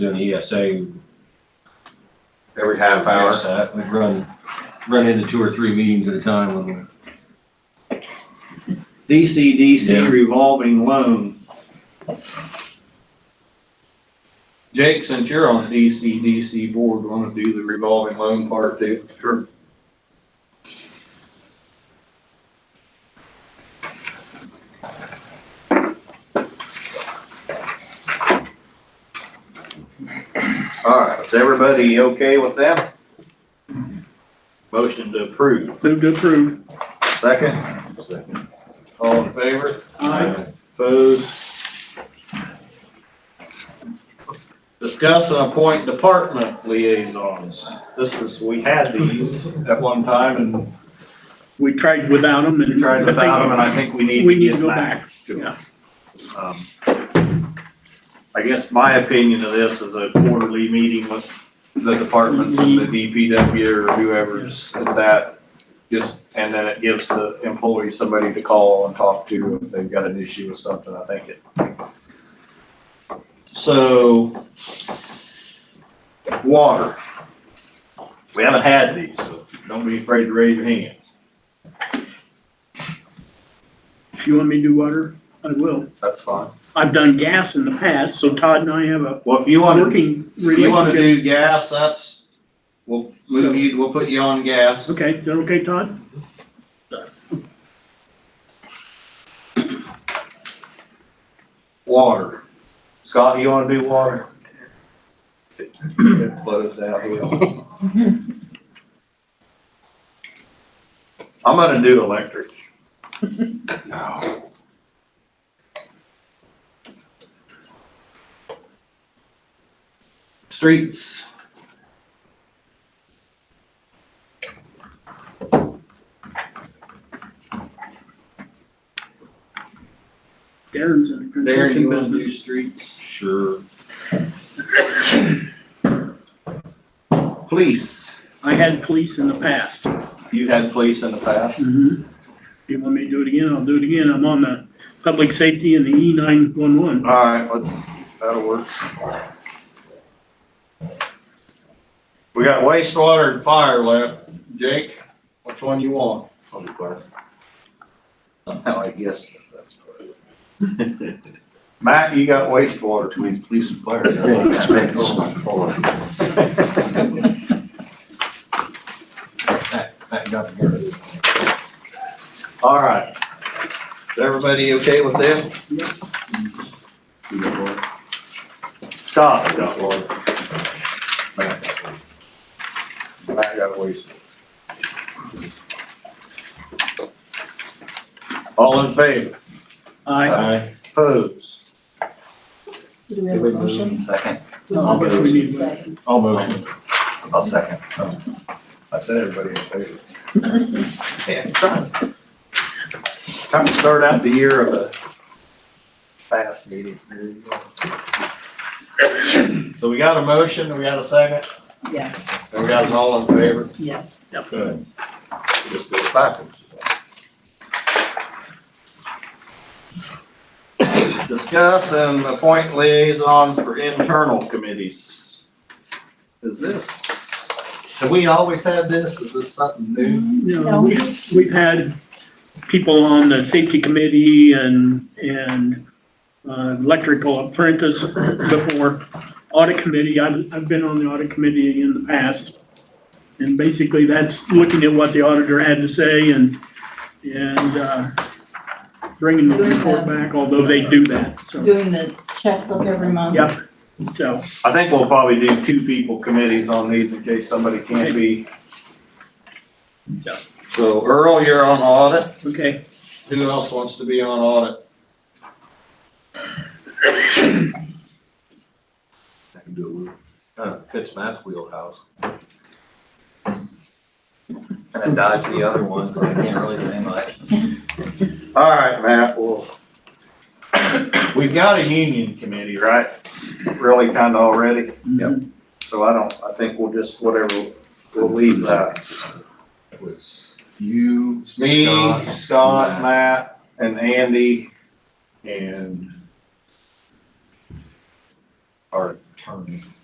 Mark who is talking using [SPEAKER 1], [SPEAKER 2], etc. [SPEAKER 1] doing the ESA.
[SPEAKER 2] every half hour.
[SPEAKER 1] that, We've run, run into two or three meetings at a time when we're. Yeah.
[SPEAKER 3] DCDC revolving loan. Jake, since you're on the DCDC board, wanna do the revolving loan part too? Sure. All right, is everybody okay with that? Motion to approve,
[SPEAKER 4] Move to approve.
[SPEAKER 3] second,
[SPEAKER 2] Second.
[SPEAKER 3] all in favor?
[SPEAKER 4] Aye.
[SPEAKER 3] Opposed? Discuss and appoint department liaisons. This is, we had these at one time and
[SPEAKER 4] We tried without them and.
[SPEAKER 3] we tried without them, and I think we need
[SPEAKER 4] We
[SPEAKER 3] to
[SPEAKER 4] need to
[SPEAKER 3] get
[SPEAKER 4] go
[SPEAKER 3] back to them. Um, I guess my opinion of this is a quarterly meeting with the departments and the DPW or whoever's at that. Just, and then it gives the employee somebody to call and talk to if they've got an issue with something, I think it. So. Water. We haven't had these, so don't be afraid to raise your hands.
[SPEAKER 4] If you want me to do water, I will.
[SPEAKER 3] That's fine.
[SPEAKER 4] I've done gas in the past, so Todd and I have a
[SPEAKER 3] Well, if you want to
[SPEAKER 4] working
[SPEAKER 3] If you wanna
[SPEAKER 4] relationship.
[SPEAKER 3] do gas, that's, we'll move you, we'll put you on gas.
[SPEAKER 4] Okay, is that okay, Todd?
[SPEAKER 3] Water. Scott, you wanna do water? Flood us out here. I'm gonna do electric.
[SPEAKER 1] Oh,
[SPEAKER 3] Streets.
[SPEAKER 4] Darren's in the
[SPEAKER 3] Darren,
[SPEAKER 4] construction
[SPEAKER 3] you wanna do
[SPEAKER 4] business.
[SPEAKER 3] streets?
[SPEAKER 1] Sure.
[SPEAKER 3] Police.
[SPEAKER 4] I had police in the past.
[SPEAKER 3] You had police in the past?
[SPEAKER 4] Mhm. If you want me to do it again, I'll do it again. I'm on the public safety and the E nine one one.
[SPEAKER 3] All right, let's, that'll work. We got wastewater and fire left. Jake, which one you want? Somehow I guess. Matt, you got wastewater.
[SPEAKER 2] Between police and fire.
[SPEAKER 3] All right. Is everybody okay with this? Scott's got water. Matt got waste. All in favor?
[SPEAKER 4] I,
[SPEAKER 1] Aye.
[SPEAKER 3] Opposed?
[SPEAKER 5] Do we have a motion?
[SPEAKER 2] Second,
[SPEAKER 4] I guess we need one.
[SPEAKER 1] All motion.
[SPEAKER 2] I'll second.
[SPEAKER 3] I said everybody in favor. Yeah, trying. Time to start out the year of a fast meeting. There you go. So we got a motion, and we got a second,
[SPEAKER 5] Yes,
[SPEAKER 3] and we got an all in favor.
[SPEAKER 5] yes.
[SPEAKER 3] Good. Just go backwards. Discuss and appoint liaisons for internal committees. Is this, have we always had this? Is this something new?
[SPEAKER 4] No,
[SPEAKER 5] No.
[SPEAKER 4] we've, we've had people on the safety committee and, and uh, electrical apprentice before. Audit committee, I've, I've been on the audit committee in the past. And basically that's looking at what the auditor had to say and, and uh, bringing the report back, although they do that, so,
[SPEAKER 5] Doing the checkbook every month.
[SPEAKER 4] yep. So,
[SPEAKER 3] I think we'll probably do two people committees on these in case somebody can't be.
[SPEAKER 4] Yeah.
[SPEAKER 3] So Earl, you're on audit.
[SPEAKER 4] okay,
[SPEAKER 3] Who else wants to be on audit?
[SPEAKER 1] Uh, Fits Matt's wheelhouse.
[SPEAKER 2] And I dodged the other ones, so I can't really say much.
[SPEAKER 3] All right, Matt, well, we've got a union committee, right? Really kind of already.
[SPEAKER 4] Yep.
[SPEAKER 3] So I don't, I think we'll just, whatever, we'll leave that.
[SPEAKER 1] It was you.
[SPEAKER 3] It's me,
[SPEAKER 1] Scott,
[SPEAKER 3] Scott, Matt, and Andy, and our
[SPEAKER 2] attorney.